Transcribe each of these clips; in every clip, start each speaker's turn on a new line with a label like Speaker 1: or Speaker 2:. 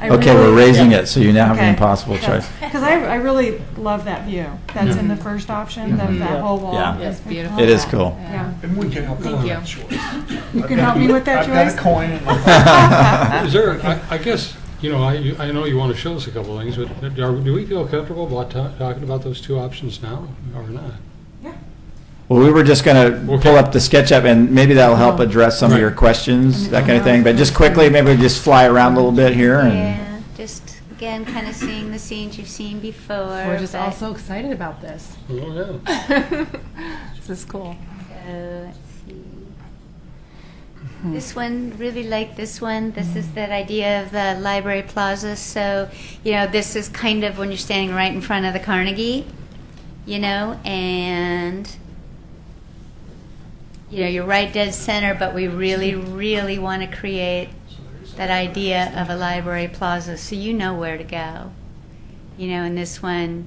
Speaker 1: I
Speaker 2: Okay,
Speaker 1: really-
Speaker 2: we're raising it, so you now have
Speaker 1: Okay.
Speaker 2: an impossible choice.
Speaker 1: Because I, I really love that view that's in the first option, that,
Speaker 2: Mhm.
Speaker 1: that whole wall.
Speaker 2: Yeah.
Speaker 1: is-
Speaker 3: It's beautiful.
Speaker 2: It is cool.
Speaker 1: Yeah.
Speaker 4: And we can help you
Speaker 3: Thank
Speaker 4: on
Speaker 3: you.
Speaker 4: that choice.
Speaker 1: You can help me with that
Speaker 4: I've got
Speaker 1: choice?
Speaker 4: a coin in my
Speaker 2: Is
Speaker 4: pocket.
Speaker 5: Is there, I- I guess, you know, I you- I know you want to show us a couple things, but are- do we feel comfortable about ta- talking about those two options now or not?
Speaker 2: Well, we were just going to
Speaker 5: Okay.
Speaker 2: pull up the SketchUp, and maybe that'll help address some of
Speaker 5: Right.
Speaker 2: your questions, that kind of thing. But just quickly, maybe we just fly around a little bit here and.
Speaker 6: Yeah, just again, kind of seeing the scenes you've seen before.
Speaker 3: We're just all
Speaker 6: but-
Speaker 3: so excited about this.
Speaker 5: Oh, yeah.
Speaker 3: This is cool.
Speaker 6: So, uh, let's see.
Speaker 3: Hmm.
Speaker 6: This one, really like this one. This is that idea of the library plaza. So, you know, this is kind of when you're standing right in front of the Carnegie, you know, and you know, you're right dead center, but we really, really want to create that idea of a library plaza so you know where to go. You know, and this one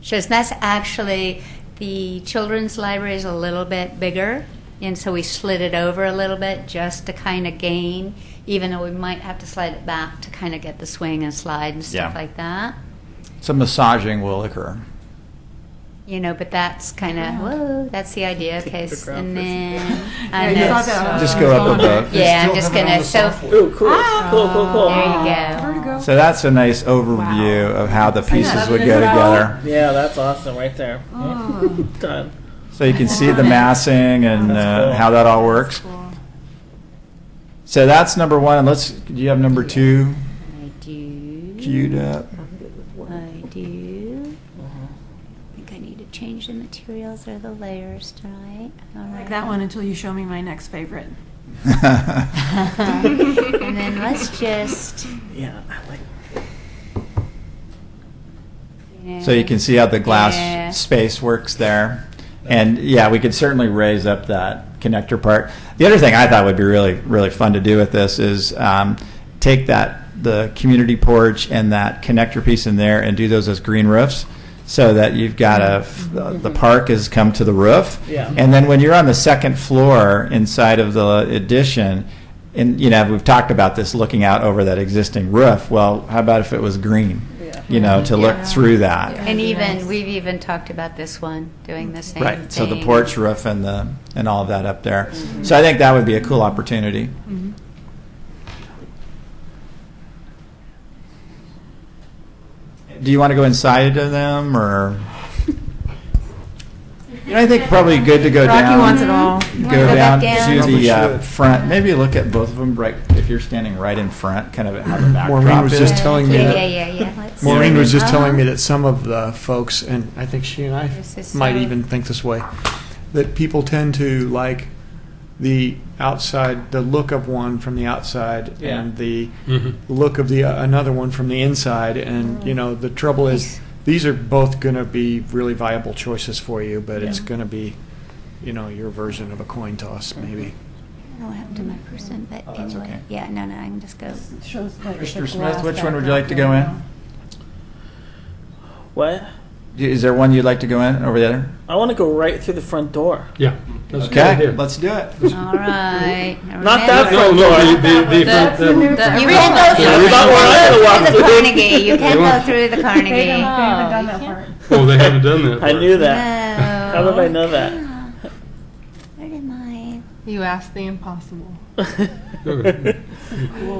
Speaker 6: shows that's actually the children's library is a little bit bigger, and so we slid it over a little bit just to kind of gain, even though we might have to slide it back to kind of get the swing and slide and stuff
Speaker 2: Yeah.
Speaker 6: like that.
Speaker 2: Some massaging will occur.
Speaker 6: You know, but that's kind of, whoa, that's the idea. Okay, s- and then.
Speaker 3: Yeah,
Speaker 6: I
Speaker 3: you
Speaker 6: know,
Speaker 3: saw that.
Speaker 2: Just go up above.
Speaker 4: They
Speaker 6: Yeah, I'm
Speaker 4: still
Speaker 6: just
Speaker 4: have it on
Speaker 6: gonna-
Speaker 4: the
Speaker 6: so-
Speaker 4: software.
Speaker 7: Ooh, cool, cool, cool, cool.
Speaker 6: There you go.
Speaker 1: Uh, Vertigo.
Speaker 2: So that's a nice overview of how the pieces would go together.
Speaker 7: Yeah, that's awesome right there. Done.
Speaker 2: So you can see the massing and
Speaker 7: That's
Speaker 2: uh,
Speaker 7: cool.
Speaker 2: how that all works. So that's number one, and let's, do you have number two
Speaker 6: I do.
Speaker 2: queued up?
Speaker 6: I do.
Speaker 1: Mm-hmm.
Speaker 6: I think I need to change the materials or the layers tonight. All
Speaker 1: Like
Speaker 6: right.
Speaker 1: that one until you show me my next favorite.
Speaker 6: and then let's just.
Speaker 7: Yeah, I like.
Speaker 2: So you can see how the glass
Speaker 6: Yeah.
Speaker 2: space works there. And yeah, we could certainly raise up that connector part. The other thing I thought would be really, really fun to do with this is um, take that, the community porch and that connector piece in there and do those as green roofs so that you've got a, f- the park has come to the roof.
Speaker 7: Yeah.
Speaker 2: And then when you're on the second floor inside of the addition, and you know, we've talked about this looking out over that existing roof. Well, how about if it was green?
Speaker 7: Yeah.
Speaker 2: You know, to
Speaker 6: Yeah.
Speaker 2: look through that.
Speaker 6: And
Speaker 3: That'd be
Speaker 6: even
Speaker 3: nice.
Speaker 6: we've even talked about this one doing the same thing.
Speaker 2: Right, so the porch roof and the, and all of that up there. So I think that would be a cool opportunity.
Speaker 6: Mm-hmm.
Speaker 2: Do you want to go inside of them, or? You know, I think probably good to go
Speaker 1: Rocky
Speaker 2: down.
Speaker 1: wants it all.
Speaker 2: Go
Speaker 6: Go
Speaker 2: down
Speaker 6: back
Speaker 2: to
Speaker 6: down.
Speaker 2: the uh,
Speaker 4: Probably should.
Speaker 2: front, maybe look at both of them, right, if you're standing right in front, kind of have a backdrop.
Speaker 8: Maureen was
Speaker 2: is.
Speaker 8: just telling me
Speaker 6: yeah,
Speaker 8: that-
Speaker 6: Yeah, yeah, yeah. Let's
Speaker 8: Maureen
Speaker 6: see.
Speaker 8: was just telling me
Speaker 6: Uh-huh.
Speaker 8: that some of the folks, and I think she and I
Speaker 6: This is
Speaker 8: might
Speaker 6: so-
Speaker 8: even think this way, that people tend to like the outside, the look of one from the outside,
Speaker 7: Yeah.
Speaker 8: and the
Speaker 5: Mhm.
Speaker 8: look of the uh, another one from the inside. And you know, the trouble
Speaker 6: Nice.
Speaker 8: is, these are both going to be really viable choices for you, but it's
Speaker 7: Yeah.
Speaker 8: going to be, you know, your version of a coin toss, maybe.
Speaker 6: I don't have to my person, but
Speaker 2: Oh, that's
Speaker 6: anyway.
Speaker 2: okay.
Speaker 6: Yeah, no, no, I can just go.
Speaker 3: Shows like
Speaker 2: Mr. Smith, which one would you like to go in?
Speaker 7: What?
Speaker 2: Is there one you'd like to go in over the other?
Speaker 7: I want to go right through the front door.
Speaker 5: Yeah. that's a good
Speaker 2: Okay,
Speaker 5: idea.
Speaker 2: let's do it.
Speaker 6: All right.
Speaker 7: Not that
Speaker 5: No,
Speaker 7: front
Speaker 5: no,
Speaker 7: door.
Speaker 5: the, the, the,
Speaker 3: That's
Speaker 5: the-
Speaker 3: the new front
Speaker 6: You
Speaker 3: door.
Speaker 6: can go through,
Speaker 5: Yeah,
Speaker 6: you
Speaker 5: we thought
Speaker 7: we were
Speaker 6: can
Speaker 7: allowed
Speaker 6: go
Speaker 7: to
Speaker 6: through the
Speaker 7: walk through.
Speaker 6: Carnegie. You can
Speaker 5: Yeah.
Speaker 6: go through the
Speaker 1: They haven't
Speaker 6: Carnegie.
Speaker 1: done that part.
Speaker 5: oh, they haven't done that.
Speaker 7: I
Speaker 5: part.
Speaker 7: knew that.
Speaker 6: No.
Speaker 7: How did I know that?
Speaker 6: Where am I?
Speaker 3: You asked the impossible.
Speaker 1: Cool,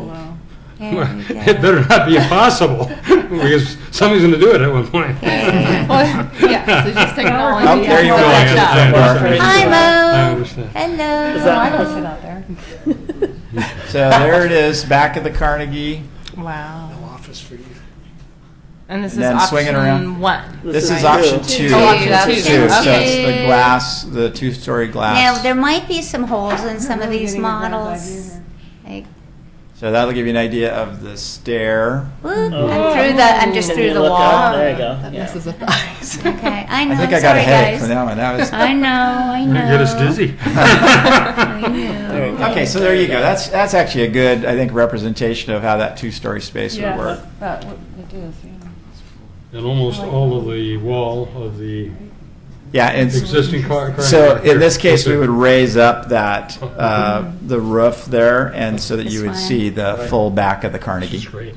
Speaker 1: though.
Speaker 6: There we
Speaker 5: It
Speaker 6: go.
Speaker 5: better not be impossible, because somebody's going to do it at one point.
Speaker 3: Well, yeah, so just technology.
Speaker 2: Oh, there you go.
Speaker 3: Yeah.
Speaker 5: I
Speaker 2: That's
Speaker 5: understand.
Speaker 2: up.
Speaker 6: Hi,
Speaker 5: I
Speaker 6: Mo.
Speaker 5: understand.
Speaker 6: Hello.
Speaker 7: Is that-
Speaker 3: I don't sit out there.
Speaker 2: So there it is, back of the Carnegie.
Speaker 3: Wow.
Speaker 8: Office for you.
Speaker 3: And this
Speaker 2: And
Speaker 3: is
Speaker 2: then swing it
Speaker 3: option
Speaker 2: around.
Speaker 3: one.
Speaker 2: This is
Speaker 7: two.
Speaker 2: option two.
Speaker 3: Oh, option
Speaker 2: Option
Speaker 3: two.
Speaker 2: two. So it's the
Speaker 6: Okay.
Speaker 2: glass, the two-story
Speaker 6: Now, there
Speaker 2: glass.
Speaker 6: might be some holes in some of
Speaker 1: Really
Speaker 6: these
Speaker 1: getting a grand
Speaker 6: models.
Speaker 1: idea
Speaker 6: Like,
Speaker 2: So that'll give you an idea of the stair.
Speaker 6: whoop,
Speaker 7: Oh.
Speaker 6: I'm through the, I'm just
Speaker 7: Can
Speaker 6: through
Speaker 7: you
Speaker 6: the
Speaker 7: look
Speaker 6: wall.
Speaker 7: up? There you go.
Speaker 3: That
Speaker 7: Yeah.
Speaker 3: messes with the eyes.
Speaker 6: Okay, I know.
Speaker 2: I think
Speaker 6: am
Speaker 2: I got a
Speaker 6: sorry,
Speaker 2: headache
Speaker 6: guys.
Speaker 2: from that one. That was.
Speaker 6: I know, I know.
Speaker 5: Might Get us dizzy.
Speaker 6: I know.
Speaker 7: you go.
Speaker 2: Okay, so there you go. That's, that's actually a good, I think, representation of how that two-story space would work.
Speaker 1: That would- it is, yeah.
Speaker 5: And almost all of the wall of the
Speaker 2: Yeah, and
Speaker 5: existing car.
Speaker 2: so in this case, we would raise up that, uh, the roof there and so that you would see the full back of the Carnegie.
Speaker 5: That's great.